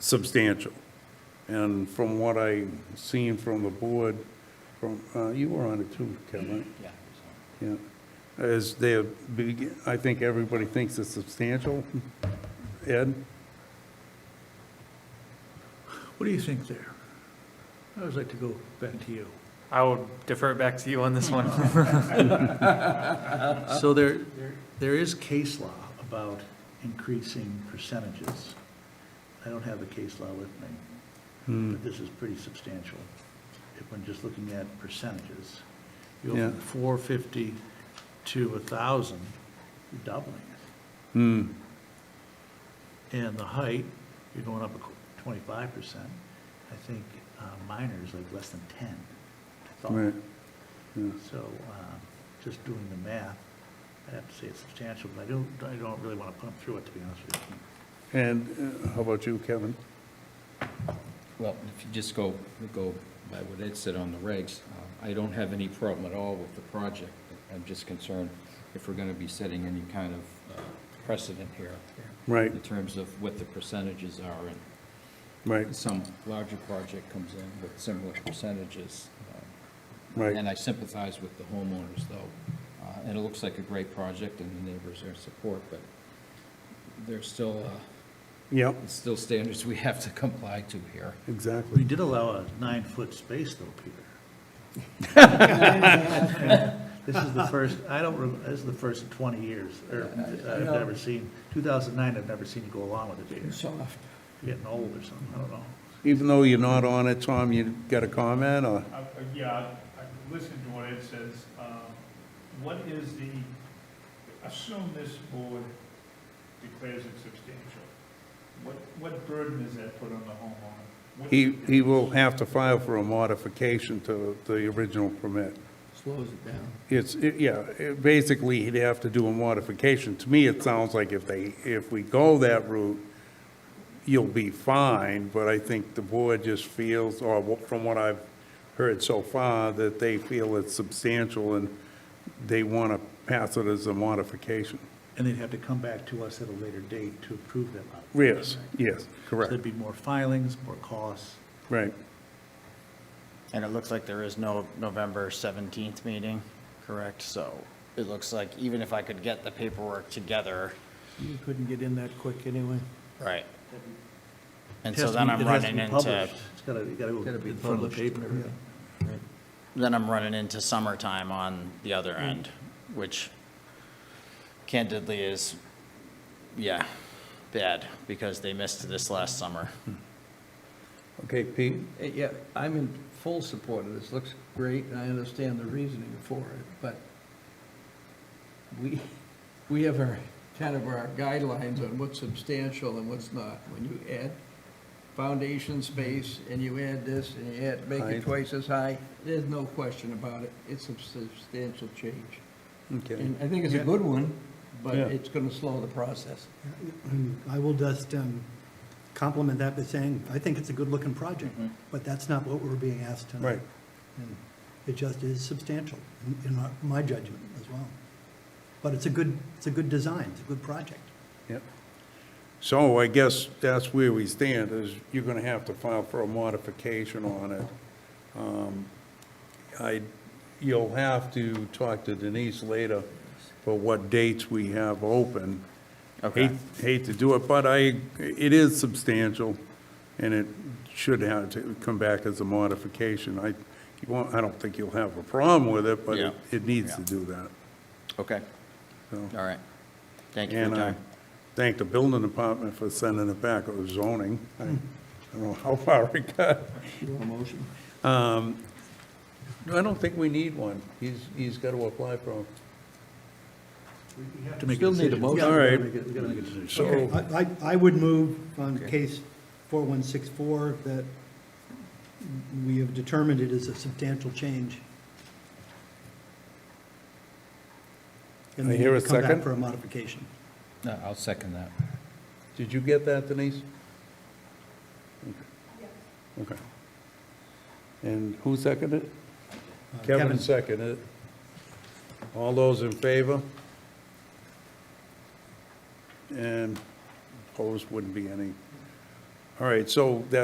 substantial. And from what I seen from the board, from, uh, you were on it too, Kevin, Yeah. yeah. As they're, beg- I think everybody thinks it's substantial. Ed? What do you think there? I always like to go back to you. I will defer it back to you on this one. So Uh, there, there is case law about increasing percentages. I don't have the case law with Hmm. me, but this is pretty substantial. If we're just looking at percentages, you go from Yeah. 450 to 1,000, you're doubling it. Hmm, And the height, you're going up a qu- 25%. I think uh, minor is like less than 10. I Oh. thought. right, yeah. So, uh, just doing the math, I'd have to say it's substantial, but I don't, I don't really want to put them through it, to be honest with you. And uh, how about you, Kevin? Well, if you just go, go by what Ed said on the regs, uh, I don't have any problem at all with the project. I'm just concerned if we're going to be setting any kind of uh, precedent here. Right. In terms of what the percentages are, and Right, some larger project comes in with similar percentages. uh, Right. And I sympathize with the homeowners, though, uh, and it looks like a great project, and the neighbors are in support, but there's still, uh, yep, It's still standards we have to comply to here. We exactly. did allow a nine-foot space though, Peter. This is the first, I don't, rem- this is the first in 20 years, or I've never seen, 2009, I've never seen you go along with it, Peter. Soft. You're Getting old or something, I don't know. Even though you're not on it, Tom, you got a comment, or? Uh, uh, Yeah, I listened to what Ed says. Um, What is the, assume this board declares it substantial. What, what burden does that put on the homeowner? What- He, he will have to file for a modification to the original permit. Slows it down. It's, it- yeah, it- basically, he'd have to do a modification. To me, it sounds like if they, if we go that route, you'll be fine, but I think the board just feels, or wha- from what I've heard so far, that they feel it's substantial and they want to pass it as a modification. And they'd have to come back to us at a later date to approve that. lot. Yes, yes, So correct, there'd be more filings, more costs. right. And it looks like there is no November 17th meeting, correct? So it looks like even if I could get the paperwork together. You couldn't get in that quick anyway. Right. And It has so to then be- I'm it has to running be into, published. It's gotta, you gotta go Gotta be in front of the published. paper. and everything. then I'm running into summertime on the other Mm. end, which candidly is, yeah, bad because they missed this last summer. Okay, Pete? Eh, Yeah, I'm in full support of this. Looks great, and I understand the reasoning for it, but we, we have our, kind of our guidelines on what's substantial and what's not. When you add foundation space, and you add this, and you add, make Height. it twice as high, there's no question about it. It's a substantial change. Okay. And I think it's a good one, but Yeah. it's gonna slow the process. I will just um, compliment that by saying, I think it's a good-looking project, Mm-hmm. but that's not what we're being asked tonight. Right. And It just is substantial, in- in my- my judgment as well. But it's a good, it's a good design, it's a good project. Yep. So I guess that's where we stand, is you're gonna have to file for a modification on it. Um, I, you'll have to talk to Denise later for what dates we have open. Okay. Hate- Hate to do it, but I, it is substantial, and it should have to come back as a modification. I, you won't, I don't think you'll have a problem with it, but it, Yeah. it needs to Yeah. do that. Okay. So- All right. Thank you for your and I time. thank the building department for sending it back, it was zoning. I don't know how far it got. You want a motion? Um, No, I don't think we need one. He's, he's got to apply for them. We have to make a Still need a decision. motion. All right. We gotta make a- we gotta make a decision. So, I, I- I would move on case 4164 that we have determined it is a substantial change. And I we hear need a to come second. back for a modification. No, Uh, I'll second that. did you get that, Denise? Okay. And who seconded it? Uh, Kevin Kevin. seconded it. All those in favor? And opposed wouldn't be any. All right, so that